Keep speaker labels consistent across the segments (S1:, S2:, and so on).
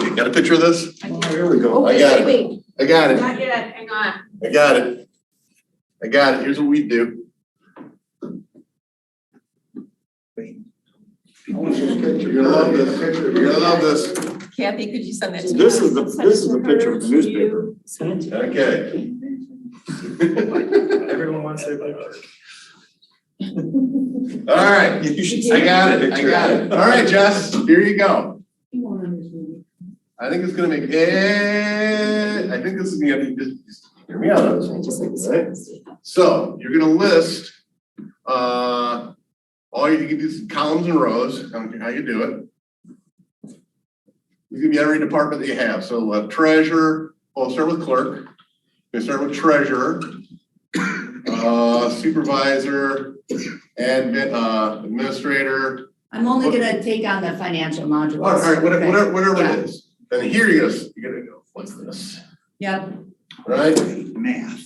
S1: screen. Got a picture of this?
S2: I
S3: Oh,
S2: can't-
S3: here we go.
S2: Oh,
S3: I
S2: wait,
S3: got
S2: wait,
S3: it.
S2: wait,
S3: I got it.
S2: not yet, hang on.
S3: I got it. I got it. Here's what we do. You're gonna love this. You're gonna love this.
S4: Kathy, could you send that to me?
S3: This is the, this is the picture of the newspaper.
S4: Send it to
S3: Okay.
S5: Everyone wants their picture.
S3: All right. You should. I got it. I got it. All right, Jess, here you go. I think it's gonna make, eh, I think this is gonna be, just- just hear me out on this
S4: me. I just like
S3: one,
S4: to
S3: right?
S4: send this to you.
S3: So you're gonna list, uh, all you can do is columns and rows, I don't care how you do it. It's gonna be every department that you have, so uh, treasurer, well, start with clerk, we start with treasurer, uh, supervisor, admin, uh, administrator,
S6: I'm only gonna take on the financial module.
S3: all right, whatever,
S6: Okay.
S3: whatever, whatever it is. Then here you go, you're gonna go like this.
S6: Yep,
S3: right? Math.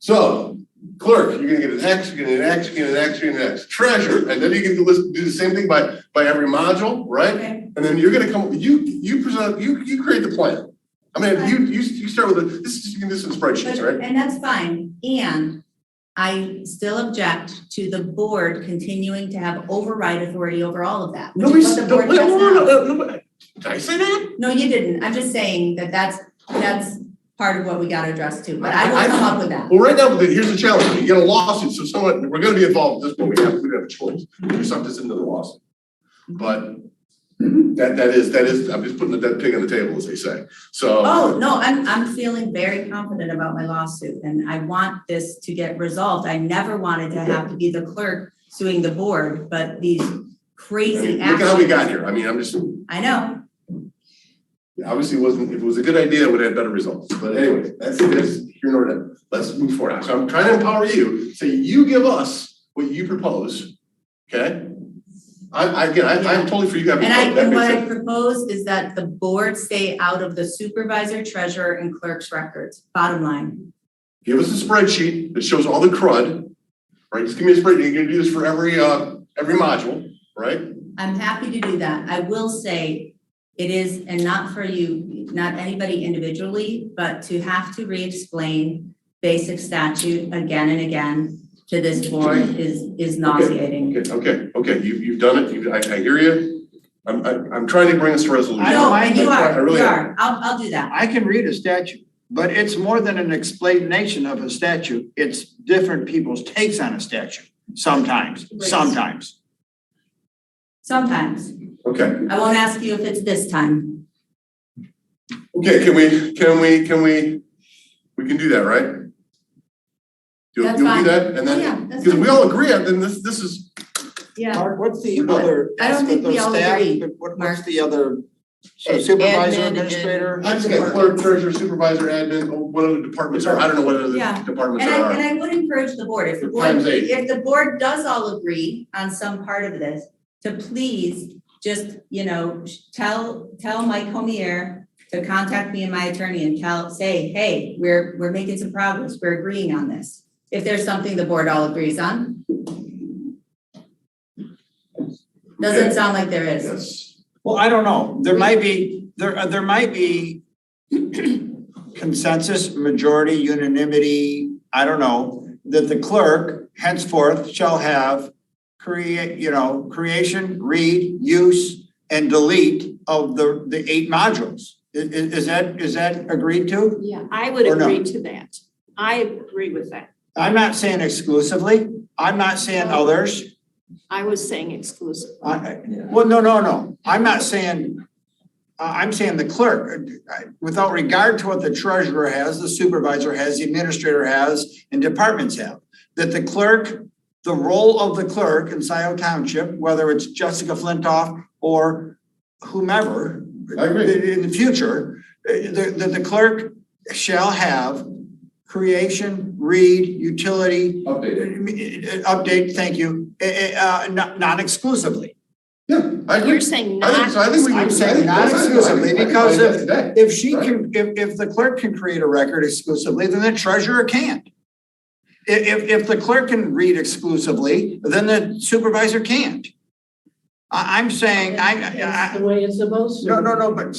S3: So clerk, you're gonna get an X, you're gonna get an X, you're gonna get an X, you're gonna get an X. Treasurer, and then you can do list, do the same thing by, by every module, right?
S6: okay,
S3: And then you're gonna come, you, you present, you, you create the plan. I mean, you, you, you start with a, this is, you can do this in
S6: but,
S3: spreadsheets, right?
S6: and that's fine, and I still object to the board continuing to have override authority over all of that. which
S3: Nobody
S6: is what
S3: said,
S6: the
S3: no,
S6: board
S3: wait,
S6: does
S3: no, no,
S6: now.
S3: no, no, no, did I say that?
S6: No, you didn't, I'm just saying that that's, that's part of what we gotta address too, but
S3: I-
S6: I
S3: I-
S6: will come up with that.
S3: Well, right now, here's the challenge, you get a lawsuit, so someone, we're gonna be involved at this point, we have, we have a choice, we suck this into the lawsuit. But that, that is, that is, I'm just putting the dead pig on the table, as they say, so.
S6: Oh, no, I'm, I'm feeling very confident about my lawsuit and I want this to get resolved. I never wanted to have to be the clerk suing the board, but these
S3: I mean,
S6: crazy
S3: Look
S6: actions.
S3: at how we got here, I mean, I'm just,
S6: I know,
S3: obviously it wasn't, if it was a good idea, it would have had better results, but anyway, that's, that's here nor there. Let's move forward, so I'm trying to empower you, so you give us what you propose, okay? I, I, again, I, I'm totally for you, I mean,
S6: and I,
S3: that
S6: and
S3: makes
S6: what I
S3: sense.
S6: propose is that the board stay out of the supervisor, treasurer and clerk's records, bottom line.
S3: give us a spreadsheet that shows all the crud, right? Just give me a spreadsheet, you're gonna do this for every, uh, every module, right?
S6: I'm happy to do that. I will say it is, and not for you, not anybody individually, but to have to re-explain basic statute again and again to this board is, is nauseating.
S3: Okay, okay, okay, you, you've done it, you, I, I hear you. I'm, I'm, I'm trying to bring us to
S5: I
S3: resolution.
S5: don't
S6: No,
S5: mind
S6: and you
S5: it,
S3: but I
S6: are, you
S3: really-
S6: are. I'll, I'll do that.
S5: I can read a statute, but it's more than an explanation of a statute. It's different people's takes on a statute, sometimes, sometimes.
S6: Sometimes.
S3: Okay,
S6: I won't ask you if it's this time.
S3: okay, can we, can we, can we, we can do that, right? You'll, you'll
S6: That's
S3: do
S6: fine.
S3: that, and
S6: Oh, yeah,
S3: then,
S6: that's
S3: because we
S6: fine.
S3: all agree, on then this, this is,
S6: Yeah.
S7: Mark, what's the
S3: We're not-
S7: other?
S6: I don't think
S7: aspect
S6: we
S7: of
S6: all
S7: staff?
S6: agree,
S7: What- What's
S6: Mark.
S7: the other so
S4: Ad- admin
S7: supervisor,
S4: and-
S7: administrator?
S3: I just got clerk, treasurer, supervisor, admin, oh, what other departments are, I don't know what other
S6: Yeah.
S3: departments
S6: And
S3: there
S6: I, and
S3: are.
S6: I would encourage the board, if the board,
S3: Times eight.
S6: if the board does all agree on some part of this, to please just, you know, sh- tell, tell Mike Homier to contact me and my attorney and tell, say, hey, we're, we're making some progress, we're agreeing on this. If there's something the board all agrees on. Doesn't sound like there is.
S3: Yes,
S5: Well, I don't know. There might be, there, uh, there might be consensus, majority, unanimity, I don't know, that the clerk henceforth shall have create, you know, creation, read, use, and delete of the, the eight modules. I- i- is that, is that agreed to?
S2: Yeah, I would
S5: Or no.
S2: agree to that. I agree with that.
S5: I'm not saying exclusively, I'm not saying others,
S2: I was saying exclusive.
S5: I, I- well, no, no, no, I'm not saying. I, I'm saying the clerk, uh, I- without regard to what the treasurer has, the supervisor has, the administrator has, and departments have. That the clerk, the role of the clerk in Scioto Township, whether it's Jessica Flintoff or whomever.
S3: I agree.
S5: in- In the future, uh, the, the, the clerk shall have creation, read, utility, uh,
S3: updated.
S5: Update, thank you, eh, eh, uh, not, not exclusively.
S3: Yeah, I agree.
S2: You're saying
S3: I think,
S2: not,
S3: so I think we.
S5: I'm
S3: can-
S5: saying
S3: I think
S5: not
S3: that's- I think- I think
S5: exclusively
S3: we can
S5: because
S3: find
S5: of-
S3: out today.
S5: If she can, if, if the clerk can create a record exclusively, then the treasurer can't. I- If, if, the clerk can read exclusively, then the supervisor can't. I, I'm saying, I, I,
S8: That's the way it's supposed
S5: I-
S8: to.
S5: no,
S8: be.
S5: no, no, but